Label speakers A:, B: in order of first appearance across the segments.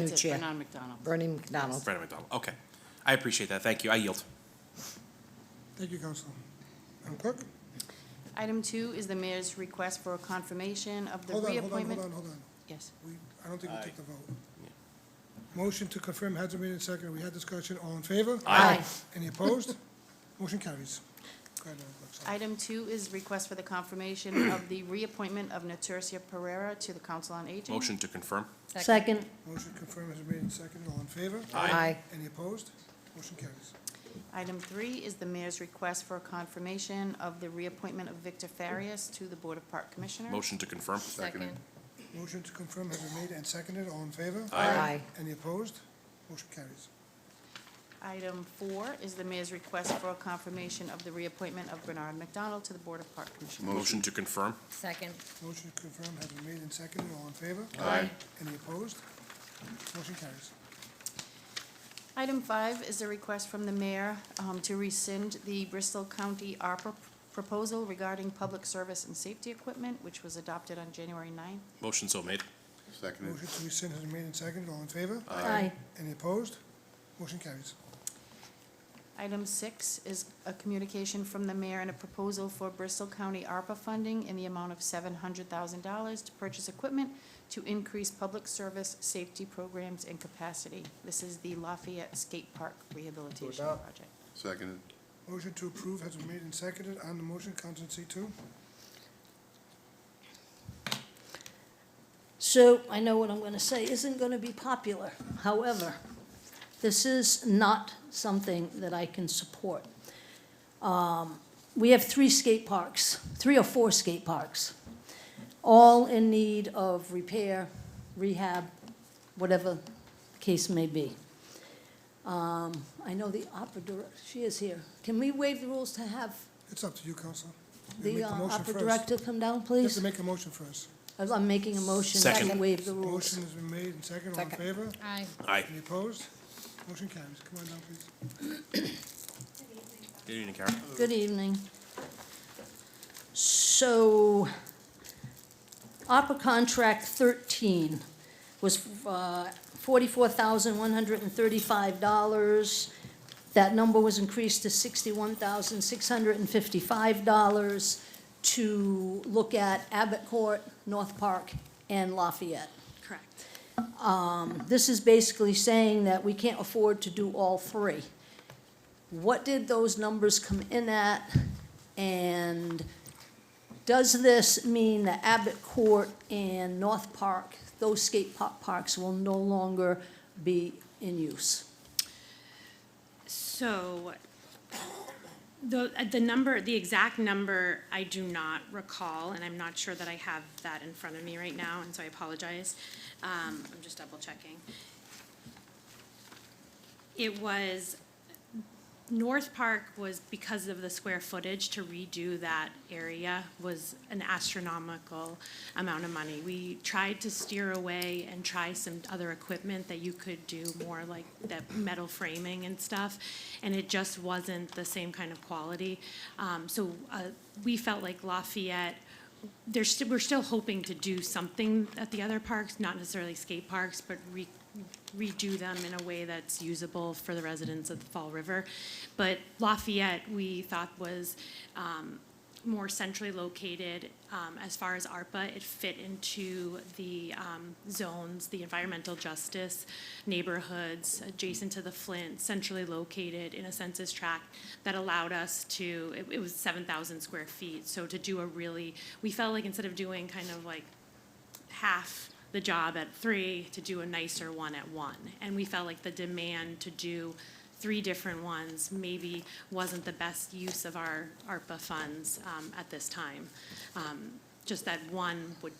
A: New
B: That's it,
A: chair.
B: Brennan McDonald.
A: Bernie McDonald.
C: Brandon McDonald, okay. I appreciate that, thank you, I yield.
D: Thank you, Council. Madam Clerk?
B: Item two is the mayor's request for confirmation of the
D: Hold on, hold on,
B: reappointment.
D: hold on, hold on.
B: Yes.
D: We, I don't think we took the vote. Motion to confirm has been made and seconded. We had discussion. All in favor?
B: Aye.
D: Any opposed? Motion carries. Go ahead, Madam Clerk, sorry.
B: Item two is request for the confirmation of the reappointment of Naturcia Pereira to the Council on Aging.
C: Motion to confirm?
A: Second.
D: Motion to confirm has been made and seconded. All in favor?
A: Aye.
D: Any opposed? Motion carries.
B: Item three is the mayor's request for confirmation of the reappointment of Victor Farias to the Board of Park Commissioners.
C: Motion to confirm?
E: Second.
D: Motion to confirm has been made and seconded. All in favor?
A: Aye.
D: Any opposed? Motion carries.
B: Item four is the mayor's request for confirmation of the reappointment of Bernard McDonald to the Board of Park Commissioners.
C: Motion to confirm?
E: Second.
D: Motion to confirm has been made and seconded. All in favor?
C: Aye.
D: Any opposed? Motion carries.
B: Item five is a request from the mayor um, to rescind the Bristol County ARPA proposal regarding public service and safety equipment, which was adopted on January 9th.
C: Motion so made?
F: Seconded.
D: Motion to rescind has been made and seconded. All in favor?
A: Aye.
D: Any opposed? Motion carries.
B: Item six is a communication from the mayor and a proposal for Bristol County ARPA funding in the amount of $700,000 to purchase equipment to increase public service, safety programs, and capacity. This is the Lafayette Skate Park Rehabilitation Project.
F: Seconded.
D: Motion to approve has been made and seconded. On the motion, Counsel in seat two.
G: So I know what I'm going to say isn't going to be popular. However, this is not something that I can support. Um, We have three skate parks, three or four skate parks, all in need of repair, rehab, whatever the case may be. Um, I know the opera director, she is here. Can we waive the rules to have
D: It's up to you, Counsel. You
G: the
D: make
G: uh,
D: motion
G: opera
D: first.
G: director come down,
D: You have
G: please?
D: to make a motion first.
G: I'm making a motion to
C: Second.
G: waive the rules.
D: Motion has been made and seconded. All in favor?
E: Aye.
C: Aye.
D: Any opposed? Motion carries. Come on down, please.
C: Good evening, Karen.
G: Good evening. So, ARPA contract 13 was uh, $44,135. That number was increased to $61,655 to look at Abbott Court, North Park, and Lafayette. Correct. This is basically saying that we can't afford to do all three what did those numbers come in at? And does this mean that Abbott Court and North Park, those skate park parks will no longer be in use?
H: So the, uh, the number, the exact number, I do not recall, and I'm not sure that I have that in front of me right now, and so I apologize. Um, I'm just double checking. It was, North Park was, because of the square footage to redo that area was an astronomical amount of money. We tried to steer away and try some other equipment that you could do more like that metal framing and stuff, and it just wasn't the same kind of quality. Um, so, uh, we felt like Lafayette there's, st- we're still hoping to do something at the other parks, not necessarily skate parks, but re- redo them in a way that's usable for the residents of the Fall River. But Lafayette, we thought was um, more centrally located. Um, As far as ARPA, it fit into the um, zones, the environmental justice neighborhoods adjacent to the Flint, centrally located in a census tract that allowed us to, it- it was 7,000 square feet. So to do a really, we felt like instead of doing kind of like half the job at three to do a nicer one at one. And we felt like the demand to do three different ones maybe wasn't the best use of our ARPA funds um, at this time. Um, Just that one would,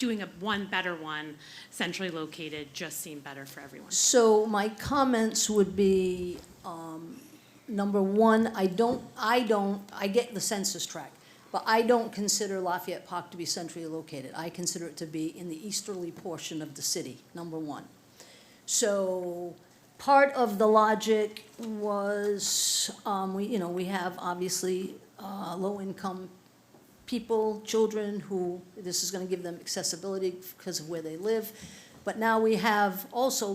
H: doing a one better one centrally located just seemed better for everyone.
G: So my comments would be, um, number one, I don't, I don't, I get the census tract, but I don't consider Lafayette Park to be centrally located. I consider it to be in the easterly portion of the city, number one. So part of the logic was, um, we, you know, we have obviously, uh, low-income people, children who, this is gonna give them accessibility because of where they live. But now we have also